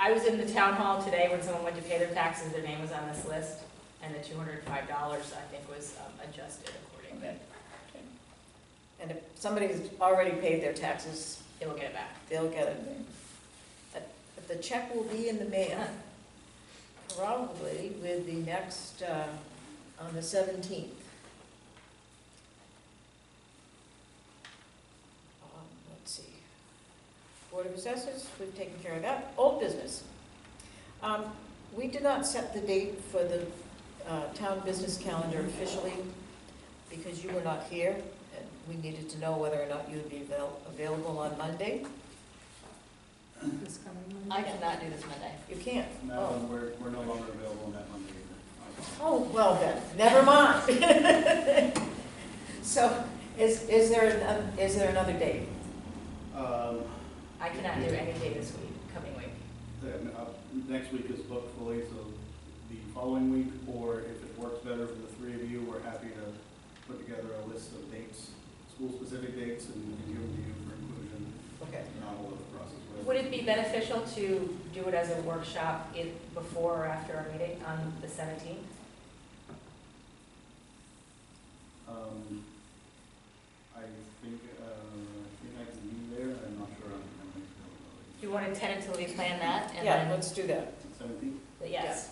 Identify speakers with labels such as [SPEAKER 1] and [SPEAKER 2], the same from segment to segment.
[SPEAKER 1] I was in the town hall today when someone went to pay their taxes, their name was on this list, and the two hundred and five dollars, I think, was um, adjusted accordingly.
[SPEAKER 2] Okay. And if somebody's already paid their taxes,
[SPEAKER 1] They will get it back.
[SPEAKER 2] they'll get it. But but the check will be in the mail, probably with the next, uh, on the seventeenth. Let's see. Board of Assessors, we've taken care of that. Old business. Um, We did not set the date for the uh, town business calendar officially because you were not here, and we needed to know whether or not you would be avail- available on Monday.
[SPEAKER 3] This coming
[SPEAKER 1] I
[SPEAKER 3] Monday.
[SPEAKER 1] cannot do this Monday.
[SPEAKER 2] You can't?
[SPEAKER 4] No,
[SPEAKER 2] Oh.
[SPEAKER 4] we're, we're no longer available on that Monday either.
[SPEAKER 2] Oh, well then, never mind. So, is, is there, an- is there another date?
[SPEAKER 4] Um,
[SPEAKER 1] I cannot do any day this week, coming week.
[SPEAKER 4] then, uh, next week is booked fully, so the following week, or if it works better for the three of you, we're happy to put together a list of dates, school-specific dates, and and give them to you for inclusion,
[SPEAKER 2] Okay.
[SPEAKER 4] not all of the process. whatever.
[SPEAKER 1] Would it be beneficial to do it as a workshop in, before or after our meeting on the seventeenth?
[SPEAKER 4] Um, I think, uh, I think I can be there, I'm not sure on how many availability.
[SPEAKER 1] Do you want to tentatively plan that and
[SPEAKER 2] Yeah,
[SPEAKER 1] then,
[SPEAKER 2] let's do that.
[SPEAKER 4] Seventeenth,
[SPEAKER 1] yes,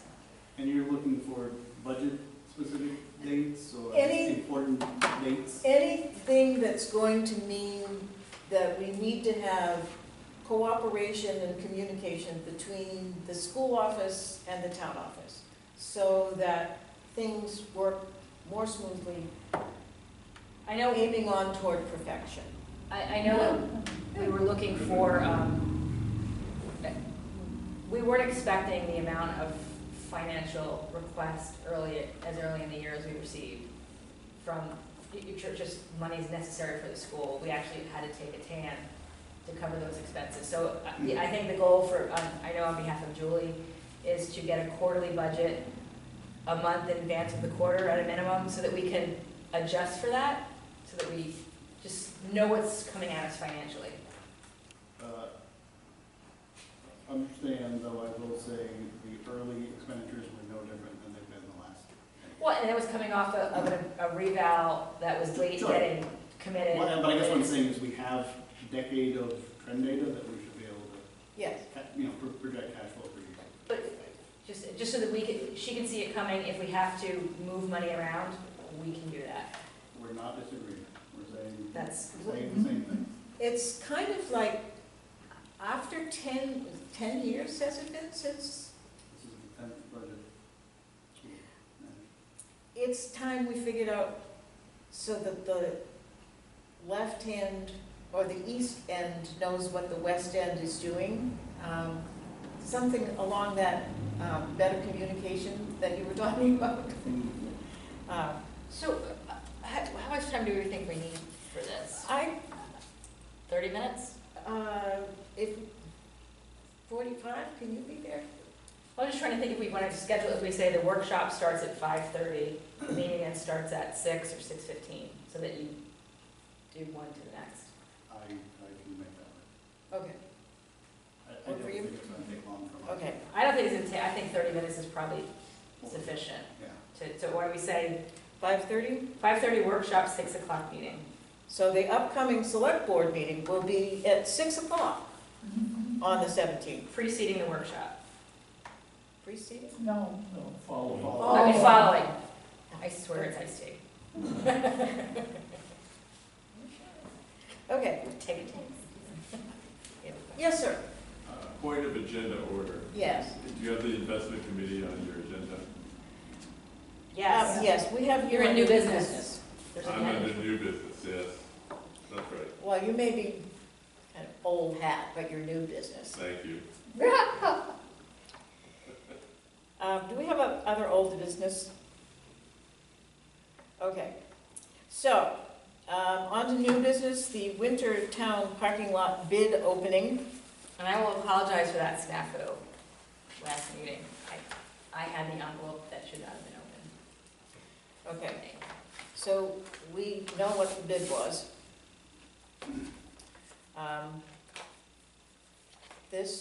[SPEAKER 4] and you're looking for budget-specific dates, or
[SPEAKER 2] Any-
[SPEAKER 4] important dates?
[SPEAKER 2] Anything that's going to mean that we need to have cooperation and communication between the school office and the town office so that things work more smoothly,
[SPEAKER 1] I know,
[SPEAKER 2] aiming on toward perfection.
[SPEAKER 1] I, I know we were looking for, um, we weren't expecting the amount of financial requests early, as early in the year as we received from, y- y- ju- just monies necessary for the school. We actually had to take a tan to cover those expenses. So I I think the goal for, um, I know on behalf of Julie, is to get a quarterly budget a month in advance of the quarter at a minimum, so that we can adjust for that, so that we just know what's coming at us financially.
[SPEAKER 4] Uh, Understand, though, I will say the early expenditures were no different than they've been the last.
[SPEAKER 1] Well, and it was coming off a- of a- a reval that was late
[SPEAKER 4] Sure.
[SPEAKER 1] getting committed.
[SPEAKER 4] Well, But I guess what I'm saying is we have decade of trend data that we should be able to,
[SPEAKER 2] Yes.
[SPEAKER 4] ca- you know, pro- project cash flow for you.
[SPEAKER 1] But just, just so that we can, she can see it coming, if we have to move money around, we can do that.
[SPEAKER 4] We're not disagreeing, we're saying,
[SPEAKER 1] That's,
[SPEAKER 4] we're saying the same thing.
[SPEAKER 2] It's kind of like, after 10, 10 years has it been since,
[SPEAKER 4] This is the tenth budget.
[SPEAKER 2] it's time we figured out so that the left hand or the east end knows what the west end is doing. Um, Something along that um, better communication that you were talking about. Uh,
[SPEAKER 1] so uh, how, how much time do we think we need for this?
[SPEAKER 2] I,
[SPEAKER 1] Thirty minutes?
[SPEAKER 2] uh, if, 45, can you be there?
[SPEAKER 1] I was just trying to think if we want to schedule, if we say the workshop starts at five thirty, the meeting then starts at six or six fifteen, so that you do one to the next.
[SPEAKER 4] I, I can make that work.
[SPEAKER 2] Okay,
[SPEAKER 4] I- I
[SPEAKER 2] Work
[SPEAKER 4] don't
[SPEAKER 2] for you?
[SPEAKER 4] think it's gonna take long for us.
[SPEAKER 2] okay.
[SPEAKER 1] I don't think it's gonna take, I think thirty minutes is probably sufficient
[SPEAKER 4] Yeah.
[SPEAKER 1] to, so why do we say
[SPEAKER 2] 5:30?
[SPEAKER 1] five thirty workshop, six o'clock meeting?
[SPEAKER 2] So the upcoming select board meeting will be at six o'clock on the seventeenth.
[SPEAKER 1] Preceding the workshop,
[SPEAKER 2] Preceding?
[SPEAKER 3] No,
[SPEAKER 4] So Follow, follow.
[SPEAKER 1] I mean,
[SPEAKER 2] Oh.
[SPEAKER 1] following, I swear it's iced tea,
[SPEAKER 2] Okay,
[SPEAKER 1] take it, take
[SPEAKER 2] yes, sir,
[SPEAKER 5] Uh, Point of agenda order.
[SPEAKER 2] yes.
[SPEAKER 5] Do you have the investment committee on your agenda?
[SPEAKER 1] Yes,
[SPEAKER 2] Um, Yes, we have. you
[SPEAKER 1] You're in
[SPEAKER 2] on
[SPEAKER 1] new business. there's a
[SPEAKER 5] I'm
[SPEAKER 1] hand.
[SPEAKER 5] under new business, yes. That's right,
[SPEAKER 2] Well, you may be kind of old hat, but you're new business.
[SPEAKER 5] thank you.
[SPEAKER 2] Uh, do we have a- other old business? Okay, so, um, on to new business, the winter town parking lot bid opening.
[SPEAKER 1] And I will apologize for that snafu last meeting. I, I had the envelope that should not have been open.
[SPEAKER 2] Okay, So we know what the bid was. Um, This